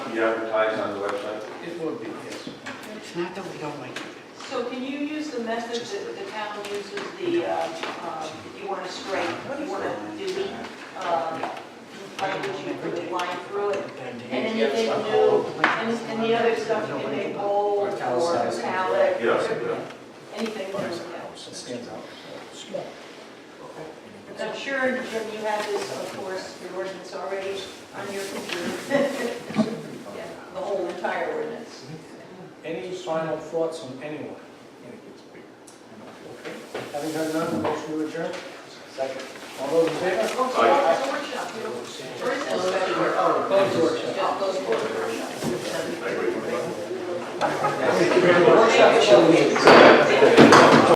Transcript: be advertised on the website? It will be, yes. It's not that we don't like you. So can you use the method that the town uses, the, uh, uh, if you want to strike, you want to delete, uh, language, you put a line through it, and anything new, and, and the other stuff you can make bold or italic, Yes, anything new. yeah. It stands out. Because I'm sure, Jim, you have this, of course, your ordinance already on your computer. Yeah, The whole entire ordinance. Any final thoughts from anyone? Okay. Having heard none, motion to adjourn? Second. All those in favor? Well, tomorrow's the workshop, you know, or is it a special workshop? Close the workshop. Just those four workshops. Workshop, shall we?